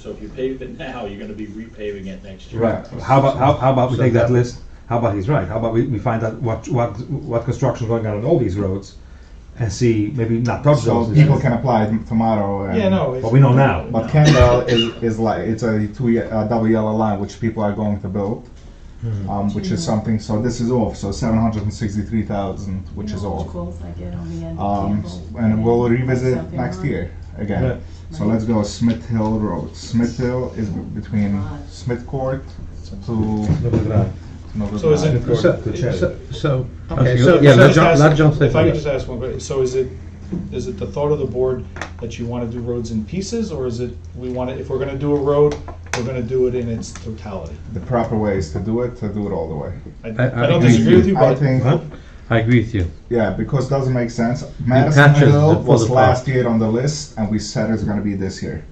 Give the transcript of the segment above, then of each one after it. So if you pave it now, you're gonna be repaving it next year. Right. How about how, how about we So take that that- list? How about he's right? How about we, we find out what what what construction is going on on all these roads, and see maybe not touch So those. people can apply it tomorrow. And, Yeah, no. it's- But we know now. But Kendall is, is like it's a two ye- a double yellow line which people are going to build, Hmm. um, which is something. So this is off. So seven hundred and sixty-three thousand, which is off. Calls I get on the end of Um, Campbell, and we'll then revisit something next on year again. Yeah. So let's go Smith Hill Road. Smith Hill is b- between Smith Court to Noble So is it- Drive. So, Good check. so- so, Okay, okay, so- so, yeah, so let just John, ask- let John say If I could first. just ask one question, so is it, is it the thought of the board that you want to do roads in pieces, or is it, we want to, if we're going to do a road, we're going to do it in its totality? The proper way is to do it to do it all the way. I I- I don't I- disagree with you, I but think Huh? I agree with you. Yeah, because it doesn't make sense. Madison catches Hill the full was effect. last year on the list, and we said it's going to be this year.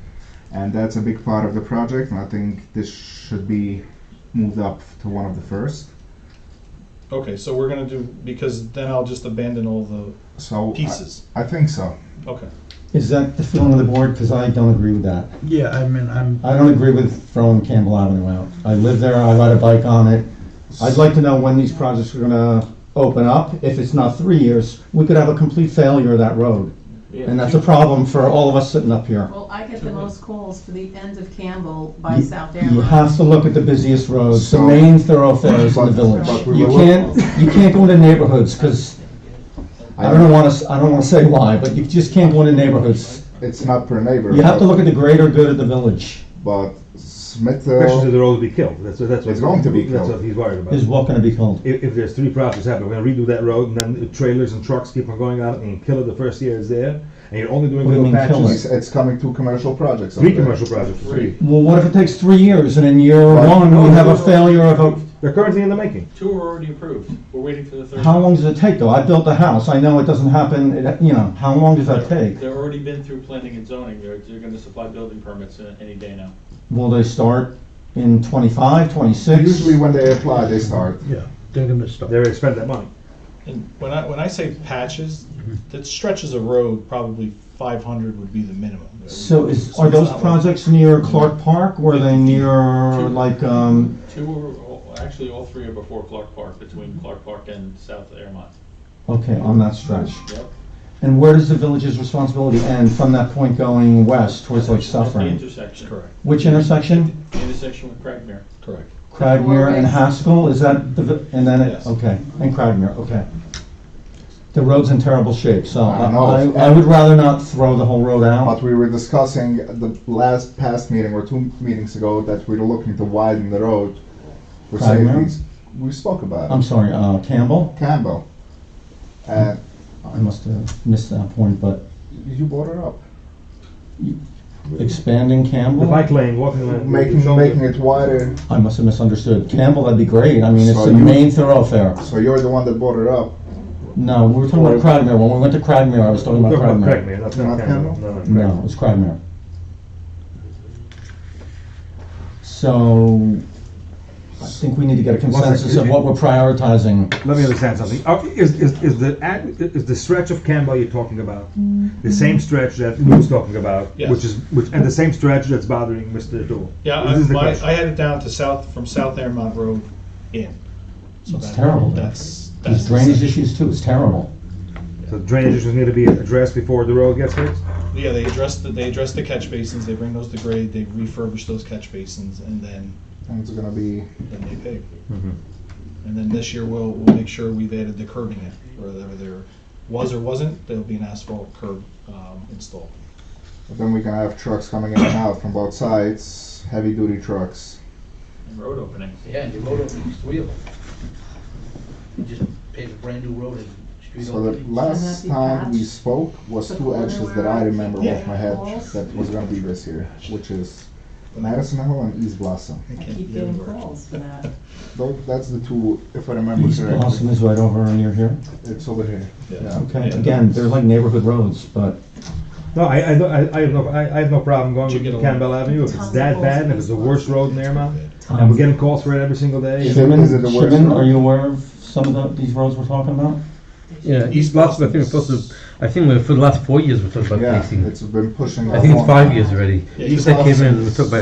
And that's a big part of the project, and I think this should be moved up to one of the first. Okay, so we're gonna do, because then I'll just abandon all the So I- pieces. I, think so. Okay. Is that the feeling of the board? Because I don't agree with that. Yeah, I mean, I'm. I don't agree with throwing Campbell Avenue out. I live there, I ride a bike on it. I'd like to know when these projects are gonna open up. If it's not three years, we could have a complete failure of that road. And that's a problem for all of us sitting up here. Well, I get the most calls for the end of Campbell by You- South You Airline. have to look at the busiest roads, the So- main thoroughfares in the village. But we You were- can't, you can't go into neighborhoods, because I don't want to, I don't want to say why, but you just can't go into neighborhoods. It's not per neighbor. You have to but- look at the greater good of the village. But Smith Especially to Hill, the road be killed. That's that's what It's going to be That's killed. what he's worried about. Is what gonna be called? if, if there's three projects happening, we're going to redo that road, and then trailers and trucks keep on going out and kill it the first year it's there, and you're only doing What do you little mean kill patches. it's, it's coming two commercial projects. up Three there. commercial projects. Three. Well, what if it takes three years and in year one we have a failure of They're currently in the making. Two are already approved. We're waiting for the a, third. how long does it take though? I built a house, I know it doesn't happen, it- you know, how long does that take? They're already been through planning and zoning. They're, they're gonna supply building permits uh, any day now. Will they start in twenty-five, twenty-six? Usually when they apply, they start. Yeah, they're gonna stop. They're going to spend that money. And when I, when I say patches, Mm-hmm. that stretches of road, probably five hundred would be the minimum. So is, So are it's those not like- projects near Clark Park, or are they near like, um, Two are, all- actually, all three are before Clark Park, between Clark Park and South Airmont. okay, on that stretch? Yep. And where does the village's responsibility end from that point going west towards like At the Suffering? intersection. Correct, Which intersection? The intersection with Craigmere. correct. Cragmere and Four ways. Haskell, is that the, vi- and then, it Yes. okay, and Cragmere, okay. The road's in terrible shape, so I I, know. I would rather not throw the whole road But out. we were discussing the last past meeting or two meetings ago that we were looking to widen the road for Right, ma'am? safeties. We spoke about it. I'm sorry, uh, Campbell, Campbell. And I must have missed that point, but you brought it up. expanding The Campbell? bike lane, walking lane, Making, shoulder. making it wider, I must have misunderstood. Campbell, that'd be great, I mean, it's So the you- main thoroughfare. so you're the one that brought it up. No, we were talking about Cragmere, when we went to Cragmere, I was talking about Talking about Cragmere. Craigmere, not Not not Campbell. Campbell? No, no, No, Craigmere. it was Cragmere. So, I think we need to get a consensus of what we're prioritizing. Let me understand something. Are- Is, is, is the ad- is the stretch of Campbell you're talking about the same stretch that Lou was talking about, Yes. which is which, and the same stretch that's bothering Mr. Dool? Yeah, This I, is the my- question. I had it down to south, from South Airmont Road in. So It's that- terrible. That's, that's. These drainage issues too, it's terrible. So drainage issues need to be addressed before the road gets fixed. Yeah, they address the, they address the catch basins, they bring those to grade, they refurbish those catch basins, and then, And it's gonna be, then they pave. And then this year, we'll, we'll make sure we've added the curbing in, whether there was or wasn't, there'll be an asphalt curb, um, installed. then we can have trucks coming in and out from both sides, heavy duty trucks. Road opening. Yeah, and the road openings, three of them. You just paved a brand new road and street So the opening. last time we spoke was two actions that I remember off my head that was gonna be this year, which is Madison Hill and East Blossom. I I can't keep get getting it. calls for that. Tho- That's the two, if I remember East Blossom correctly. is right over near here. It's over here. Yeah. Yeah. Okay, Yeah. again, they're like neighborhood roads, but No, I, I, don't- I, I have no, I, I have no problem going Should get with a- Campbell Avenue if it's that bad, and if it's the worst road in Airmont, and we're Um, getting calls for it every single day. Sure. Shimon, is it the worst Shimon, road? are you aware of some of the, these roads we're talking about? Yeah, East Blossom, I think we're supposed to, I think we for the last four years, we're talking about Yeah, fixing. it's been pushing. I think it's along. five years already. Yeah, Since East I came in, Blossom we is- talked about